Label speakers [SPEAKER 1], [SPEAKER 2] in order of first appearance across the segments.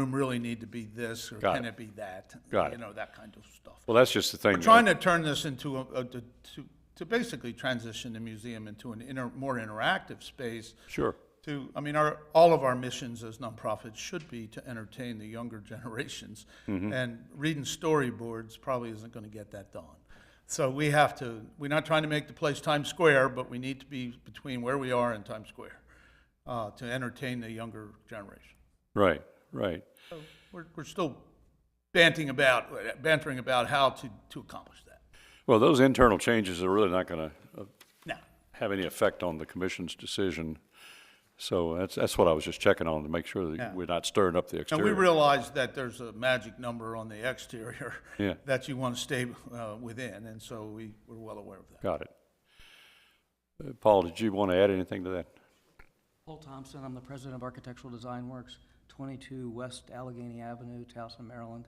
[SPEAKER 1] room really need to be this, or
[SPEAKER 2] Got
[SPEAKER 1] can
[SPEAKER 2] it.
[SPEAKER 1] it be that?
[SPEAKER 2] Got
[SPEAKER 1] You
[SPEAKER 2] it.
[SPEAKER 1] know, that kind of stuff.
[SPEAKER 2] Well, that's just the thing.
[SPEAKER 1] We're trying to turn this into a, a- to, to basically transition the museum into an inter, more interactive space
[SPEAKER 2] Sure.
[SPEAKER 1] to, I mean, our, all of our missions as nonprofits should be to entertain the younger generations.
[SPEAKER 2] Mm-hmm.
[SPEAKER 1] And reading storyboards probably isn't gonna get that done. So we have to, we're not trying to make the place Times Square, but we need to be between where we are and Times Square, uh, to entertain the younger generation.
[SPEAKER 2] Right, right.
[SPEAKER 1] We're, we're still bantering about, bantering about how to, to accomplish that.
[SPEAKER 2] Well, those internal changes are really not going to
[SPEAKER 1] Now,
[SPEAKER 2] have any effect on the commission's decision. So that's, that's what I was just checking on to make sure
[SPEAKER 1] Yeah.
[SPEAKER 2] that we're not stirring up the
[SPEAKER 1] And we
[SPEAKER 2] exterior.
[SPEAKER 1] realize that there's a magic number on the exterior
[SPEAKER 2] Yeah.
[SPEAKER 1] that you want to stay uh, within, and so we, we're well aware of that.
[SPEAKER 2] Got it. Uh, Paul, did you want to add anything to that?
[SPEAKER 3] Paul Thompson, I'm the president of Architectural Design Works, 22 West Allegheny Avenue, Towson, Maryland,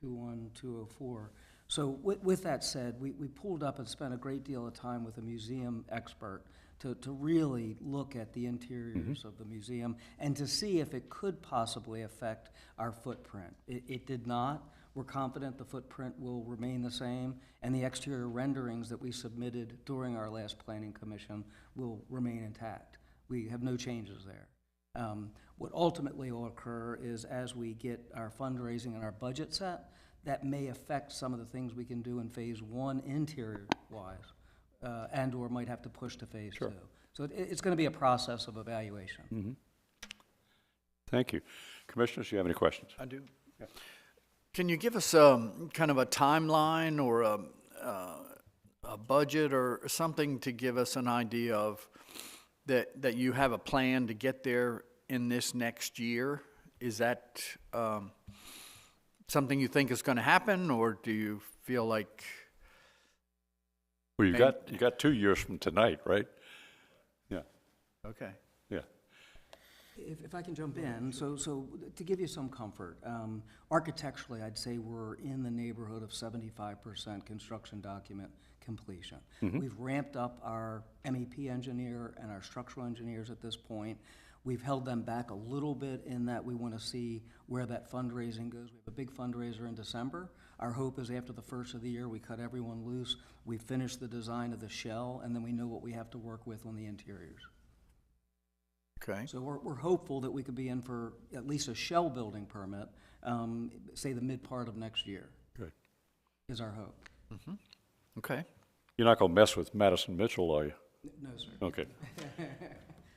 [SPEAKER 3] 21204. So with, with that said, we, we pulled up and spent a great deal of time with a museum expert to, to really look at the interiors of the museum and to see if it could possibly affect our footprint. It, it did not. We're confident the footprint will remain the same, and the exterior renderings that we submitted during our last planning commission will remain intact we have no changes there. Um, What ultimately will occur is as we get our fundraising and our budget set, that may affect some of the things we can do in phase one interior-wise, uh, and/or might have to push to phase two. So it, it's going to be a process of evaluation.
[SPEAKER 2] Thank you. Commissioners, do you have any questions?
[SPEAKER 4] I do. Can you give us um kind of a timeline or a, uh, a budget or something to give us an idea of that, that you have a plan to get there in this next year? Is that, um, something you think is gonna happen, or do you feel like,
[SPEAKER 2] Well, you
[SPEAKER 4] Main-
[SPEAKER 2] got, you got two years from tonight, right? Yeah,
[SPEAKER 4] okay?
[SPEAKER 2] yeah.
[SPEAKER 3] If, if I can jump in, so, so to give you some comfort, um, architecturally, I'd say we're in the neighborhood of seventy-five percent construction document completion. We've ramped up our MEP engineer and our structural engineers at this point. We've held them back a little bit in that we want to see where that fundraising goes. We have a big fundraiser in December. Our hope is after the first of the year, we cut everyone loose, we finish the design of the shell, and then we know what we have to work with on the interiors.
[SPEAKER 4] Okay.
[SPEAKER 3] So we're, we're hopeful that we could be in for at least a shell building permit, um, say the mid part of next year
[SPEAKER 2] Good.
[SPEAKER 3] is our hope.
[SPEAKER 4] Okay.
[SPEAKER 2] You're not going to mess with Madison Mitchell, are you?
[SPEAKER 3] No, sir.
[SPEAKER 2] Okay.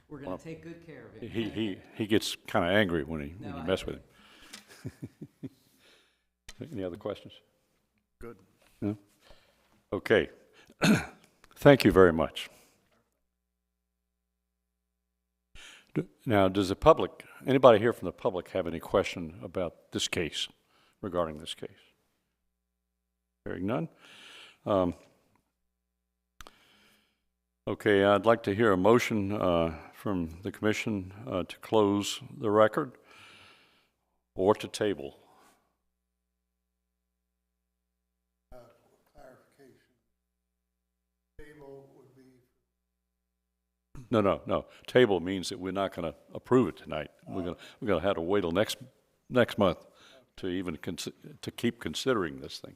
[SPEAKER 3] We're gonna take good care of it.
[SPEAKER 2] He, he, he gets kind of angry when he, when
[SPEAKER 3] No,
[SPEAKER 2] you
[SPEAKER 3] I-
[SPEAKER 2] mess with him. Any other questions?
[SPEAKER 4] Good.
[SPEAKER 2] No? Okay. Thank you very much. D- Now, does the public, anybody here from the public have any question about this case, regarding this case? Hearing none. Um, Okay, I'd like to hear a motion uh, from the commission uh, to close the record or to table. Uh, No, no, no. Table means that we're not going to approve it tonight. We're going to, we're going to have to wait till next, next month to even, consi- to keep considering this thing.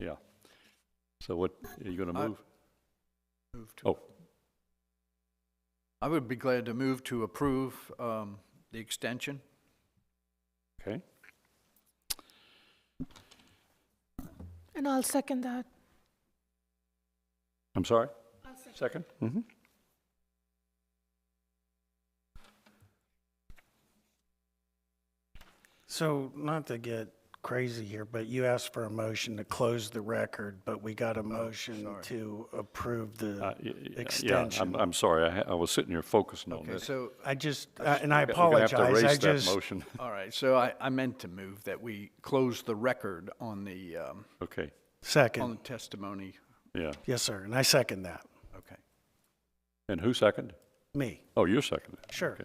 [SPEAKER 2] Yeah. So what, are you going to
[SPEAKER 4] I-
[SPEAKER 2] move?
[SPEAKER 4] Move to-
[SPEAKER 2] Oh,
[SPEAKER 4] I would be glad to move to approve, um, the extension.
[SPEAKER 2] okay.
[SPEAKER 5] And I'll second that.
[SPEAKER 2] I'm sorry? second. Mm-hmm.
[SPEAKER 6] So, not to get crazy here, but you asked for a motion to close the record, but we got a
[SPEAKER 2] Oh,
[SPEAKER 6] motion to approve
[SPEAKER 2] Uh,
[SPEAKER 6] the
[SPEAKER 2] I'm,
[SPEAKER 6] extension.
[SPEAKER 2] I'm sorry. I, ha- I was sitting here focusing on
[SPEAKER 4] Okay,
[SPEAKER 2] this.
[SPEAKER 4] so
[SPEAKER 6] I just, uh, and I
[SPEAKER 2] We're gonna have
[SPEAKER 6] apologize,
[SPEAKER 2] to
[SPEAKER 6] I
[SPEAKER 2] erase that
[SPEAKER 6] just,
[SPEAKER 2] motion.
[SPEAKER 4] All right, so I, I meant to move that we close the record on the, um,
[SPEAKER 2] Okay,
[SPEAKER 4] on the
[SPEAKER 6] second,
[SPEAKER 4] testimony.
[SPEAKER 2] yeah.
[SPEAKER 6] yes, sir, and I second that,
[SPEAKER 4] Okay.
[SPEAKER 2] And who seconded?
[SPEAKER 6] me,
[SPEAKER 2] Oh, you're seconded.
[SPEAKER 6] sure.
[SPEAKER 2] Okay.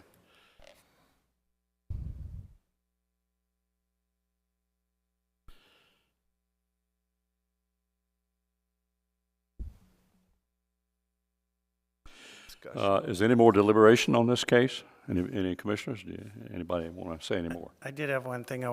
[SPEAKER 2] Uh, Is there any more deliberation on this case? Any, any commissioners? Do you- Anybody want to say any more?
[SPEAKER 6] I did have one thing I